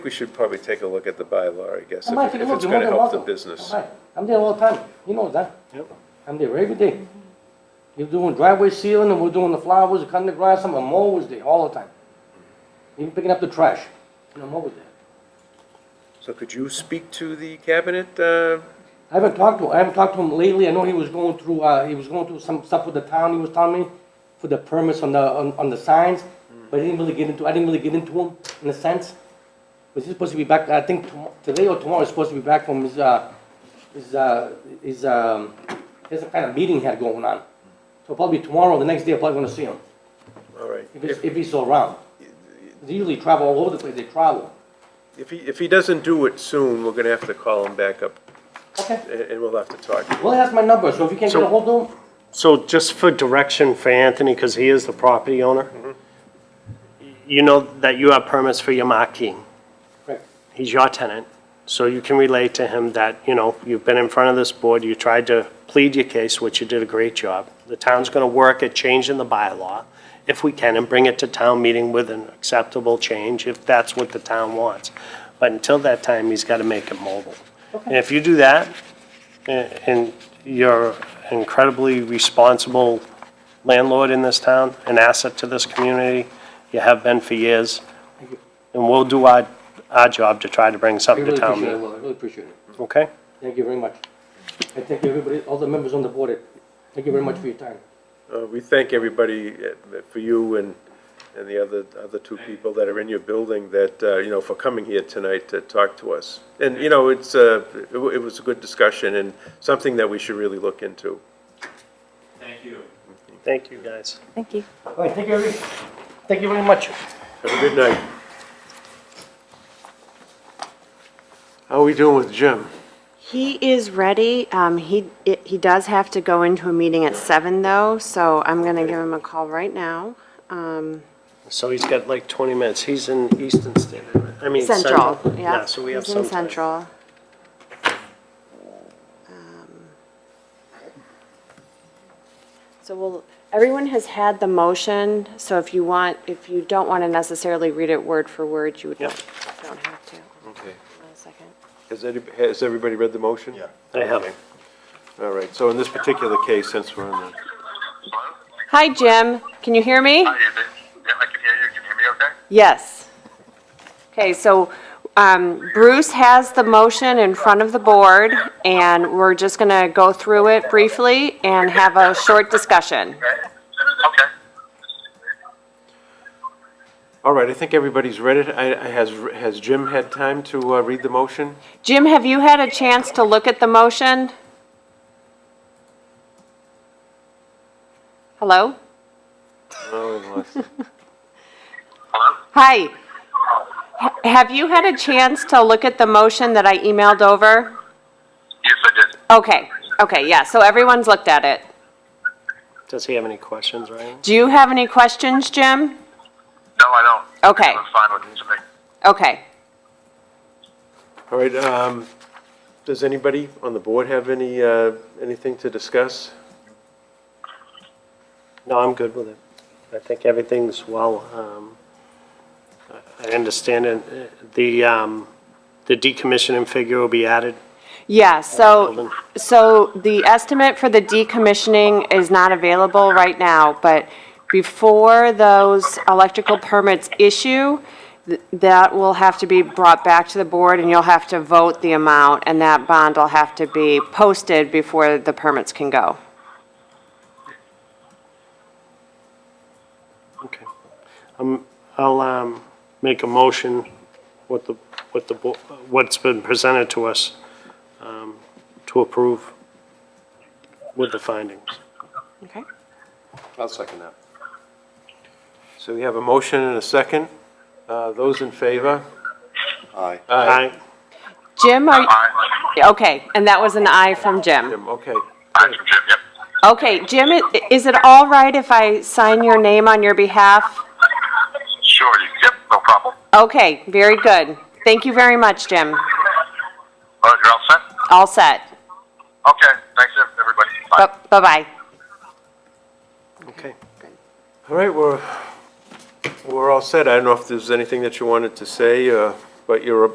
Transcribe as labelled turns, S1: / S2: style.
S1: We should probably take a look at the bylaw, I guess,
S2: I might
S1: if
S2: take
S1: it-
S2: a
S1: if
S2: look,
S1: it's
S2: you're more
S1: gonna
S2: than
S1: help the
S2: welcome.
S1: business.
S2: All right. I'm there all the time, you know that.
S1: Yep.
S2: I'm there every day. You're doing driveway sealing, and we're doing the flowers, cutting the grass, and I'm always there, all the time. Even picking up the trash, you know, I'm always there.
S1: So could you speak to the cabinet, uh,
S2: I haven't talked to, I haven't talked to him lately, I know he was going through, uh, he was going through some stuff with the town, he was telling me, for the permits on the, on, on the signs,
S3: Mm.
S2: but I didn't really get into, I didn't really get into him, in a sense. But he's supposed to be back, I think tomo- today or tomorrow, he's supposed to be back from his, uh, his, uh, his, um, there's a kind of meeting he had going on. So probably tomorrow, the next day, I'm probably gonna see him,
S1: all right,
S2: if he's,
S1: if,
S2: if he's still around. They usually travel all over the place, they travel.
S1: if he, if he doesn't do it soon, we're gonna have to call him back up,
S2: Okay,
S1: and, and we'll have to talk.
S2: well, he has my number, so if you can't get
S3: So-
S2: a hold of him,
S3: So just for direction for Anthony, because he is the property owner, you know that you have permits for your marquee.
S2: Right.
S3: He's your tenant, so you can relate to him that, you know, you've been in front of this board, you tried to plead your case, which you did a great job. The town's gonna work at changing the bylaw, if we can, and bring it to town meeting with an acceptable change, if that's what the town wants. But until that time, he's gotta make it mobile. And if you do that, and you're incredibly responsible landlord in this town, an asset to this community. You have been for years. And we'll do our, our job to try to bring
S2: I
S3: something
S2: really
S3: to town
S2: appreciate it,
S3: meeting,
S2: Will, I really appreciate it.
S3: okay?
S2: Thank you very much. And thank you, everybody, all the members on the board. Thank you very much for your time.
S1: Uh, we thank everybody uh, for you and, and the other, other two people that are in your building that, uh, you know, for coming here tonight to talk to us. And, you know, it's, uh, it wa- it was a good discussion and something that we should really look into.
S4: Thank you.
S3: Thank you, guys.
S5: Thank you.
S2: All right, thank you, every- thank you very much.
S1: Have a good night.
S6: How are we doing with Jim?
S5: He is ready. Um, he, it- he does have to go into a meeting at seven though, so I'm gonna give him a call right now. Um,
S3: So he's got like 20 minutes. He's in Easton State, I mean.
S5: Central, yeah.
S3: Yeah, so we have
S5: He's
S3: some.
S5: in
S3: time.
S5: Central. Um, So we'll, everyone has had the motion, so if you want, if you don't wanna necessarily read it word for word, you would
S3: Yep.
S5: not, don't have to.
S1: Okay.
S5: One second.
S1: Has any, has everybody read the motion? Yeah.
S3: I have.
S1: All right, so in this particular case, since we're on the,
S5: Hi, Jim. Can you hear me?
S7: Hi, is it? Yeah, I can hear you. Can you hear me okay?
S5: Yes. Okay, so um, Bruce has the motion in front of the board, and we're just going to go through it briefly and have a short discussion.
S7: Okay.
S6: All right, I think everybody's read it. I, I- has, has Jim had time to uh, read the motion?
S5: Jim, have you had a chance to look at the motion? Hello?
S6: No, he lost it.
S5: Hi. Ha- Have you had a chance to look at the motion that I emailed over?
S7: Yes, I did.
S5: Okay, okay, yeah, so everyone's looked at it.
S3: Does he have any questions, Ryan?
S5: Do you have any questions, Jim?
S7: No, I don't.
S5: Okay,
S7: That's fine with me.
S5: okay.
S1: all right, um, does anybody on the board have any, uh, anything to discuss?
S3: No, I'm good with it. I think everything's well, um, I I understand it. The, um, the decommissioning figure will be added.
S5: Yeah,
S3: Building.
S5: so, so the estimate for the decommissioning is not available right now, but before those electrical permits issue, th- that will have to be brought back to the board, and you'll have to vote the amount, and that bond will have to be posted before the permits can go.
S3: Okay. Um, I'll, um, make a motion with the, with the, bo- what's been presented to us, um, to approve with the findings.
S5: Okay?
S6: I'll second that.
S1: So we have a motion and a second. Uh, Those in favor?
S3: Aye.
S5: Jim, are,
S7: All right.
S5: you- okay, and that was an aye from Jim.
S1: Jim, okay.
S7: All right, from Jim. Yep.
S5: Okay, Jim, i- is it all right if I sign your name on your behalf?
S7: Sure. You, yep. No problem.
S5: Okay, very good. Thank you very much, Jim.
S7: All right. You're all set.
S5: All set.
S7: Okay. Thanks, everybody. Bye.
S5: Bu- Bye-bye.
S3: Okay.
S1: All right, we're, we're all set. I don't know if there's anything that you wanted to say, uh, but you're a